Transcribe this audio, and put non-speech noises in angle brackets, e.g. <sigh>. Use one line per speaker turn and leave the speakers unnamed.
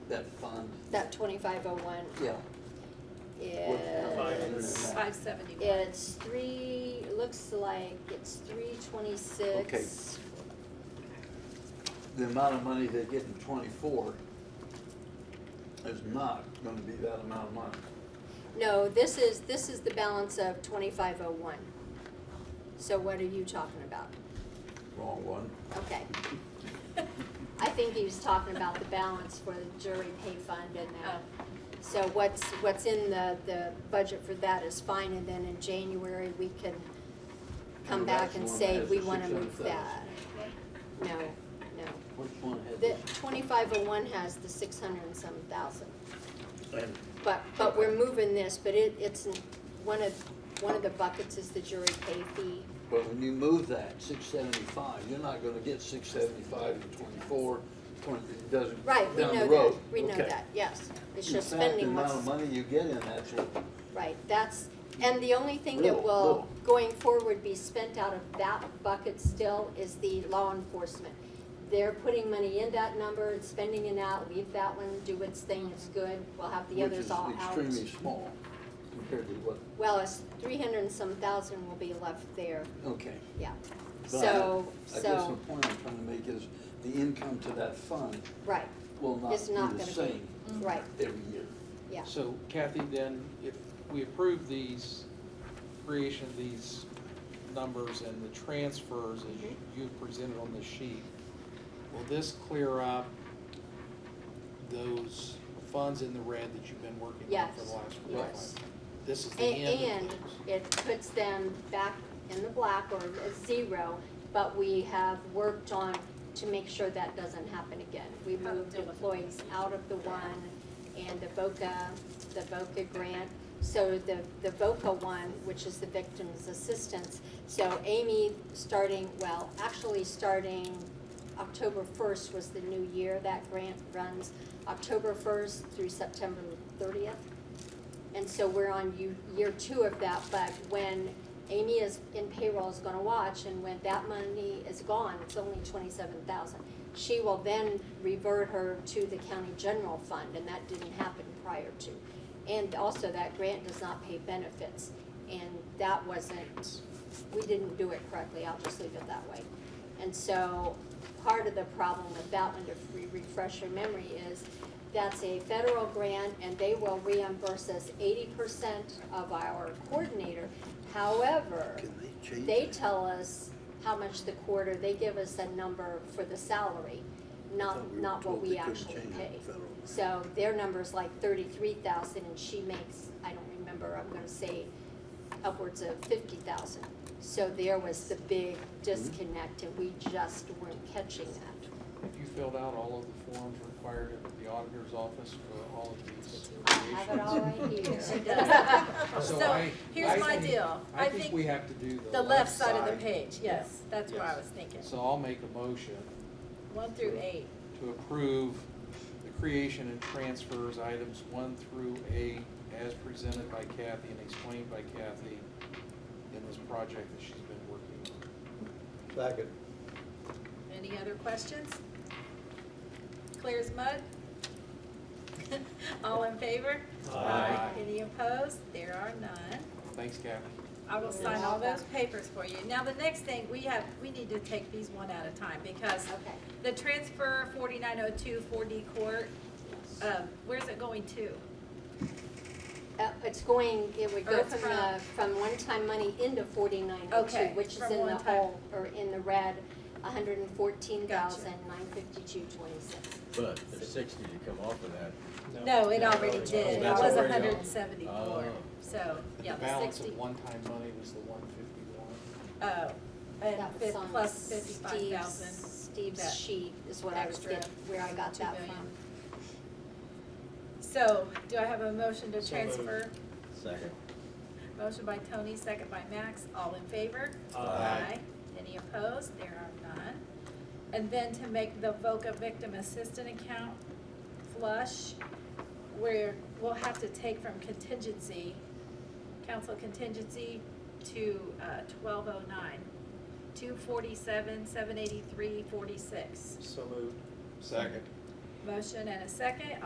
that fund,
That twenty-five oh one
yeah.
is,
Five seventy-one.
it's three, it looks like it's three twenty-six.
The amount of money they get in twenty-four is not gonna be that amount of money.
No, this is, this is the balance of twenty-five oh one. So what are you talking about?
Wrong one.
Okay.
<laughs>
I think he was talking about the balance for the jury pay fund and that. So what's, what's in the, the budget for that is fine, and then in January, we can come
And
back
that's
and
the one
say,
that has
we
the
wanna move
600,000.
that. No, no.
Which one had
The
this?
twenty-five oh one has the six hundred and some thousand,
And
but, but we're moving this, but it, it's, in- one of, one of the buckets is the jury pay fee.
But when you move that, six seventy-five, you're not gonna get six seventy-five in twenty-four, twenty, it doesn't,
Right,
down
we
the
know
road.
that, we know
Okay.
that, yes. It's
In
just
fact,
spending what's.
The amount of money you get in that's what,
Right, that's, and the only thing that
Little,
will,
little.
going forward, be spent out of that bucket still is the law enforcement. They're putting money in that number and spending it out, leave that one, do its thing, it's good, we'll have the
which
others
is
all out.
extremely small compared to what,
Well, it's three hundred and some thousand will be left there,
okay.
yeah.
But
So,
I guess the
so,
point I'm trying to make is the income to that fund
right,
will not
It's not
be the
gonna be-
same
right,
every year.
yeah,
So Kathy, then, if we approve these, creation of these numbers and the transfers as you- you've presented on this sheet, will this clear up those funds in the red that you've been working on for
Yes,
the last four
yes.
months? This is the end
And,
of
and
those.
it puts them back in the black or at zero, but we have worked on to make sure that doesn't happen again. We
How to
moved
deal with it.
employees out of the one and the VOCA, the VOCA grant. So the, the VOCA one, which is the victim's assistance, so Amy starting, well, actually starting October first was the new year. That grant runs October first through September thirtieth. And so we're on you- year two of that, but when Amy is in payroll is gonna watch, and when that money is gone, it's only twenty-seven thousand. She will then revert her to the county general fund, and that didn't happen prior to. And also, that grant does not pay benefits, and that wasn't, we didn't do it correctly, I'll just leave it that way. And so, part of the problem with that one, to re- refresh your memory, is that's a federal grant, and they will reimburse us eighty percent of our coordinator. However,
Can they change?
they
that?
tell us how much the quarter, they give us a number for the salary,
Thought
not,
we were
not what
told
we
they couldn't
actually
change
pay.
it federal.
So their number's like thirty-three thousand, and she makes, I don't remember, I'm gonna say upwards of fifty thousand. So there was the big disconnect, and we just weren't catching that.
Have you filled out all of the forms required at the auditor's office for all of these
I have it all <laughs> right
creations?
here.
<laughs> She does.
So
So
I- I
here's my
think-
deal.
I
I
think
think
we have to do the
the left side of the page, yes, that's what I
Yes.
was thinking.
So I'll make a motion
One through eight.
to approve the creation and transfers items one through eight as presented by Kathy and explained by Kathy in this project that she's been working on.
Second.
Any other questions? Clear as mud? <laughs> All in favor?
Aye.
Any opposed? There are none.
Thanks, Kathy.
I will sign all those papers for you. Now, the next thing, we have, we need to take these one at a time because
Okay.
the transfer 4902 4D court, um, where's it going to?
Uh, it's going, it would
Or
go
it's
from
from-
the, from one-time money into forty-nine oh two,
Okay,
which is
from
in the
one-time.
hole, or in the red, a hundred and fourteen thousand, nine fifty-two, twenty-six.
But there's sixty to come off of that.
No, it already
Oh,
did. It
that's
was
already on.
174.
Oh.
So,
But
yeah,
The
the
balance
60.
of one-time money was the one fifty-one.
Oh,
That
and
was
fif-
on
plus
Steve's-
55,000. that
Steve's sheet is what I was
extra
getting, where I got
two
that
million.
from.
So, do I have a motion to transfer?
Second.
Motion by Tony, second by Max, all in favor?
Aye.
Any opposed? There are none. And then to make the VOCA victim assistant account flush, where we'll have to take from contingency, council contingency to twelve oh nine, two forty-seven, seven eighty-three, forty-six.
So moved. Second.
Motion and a second,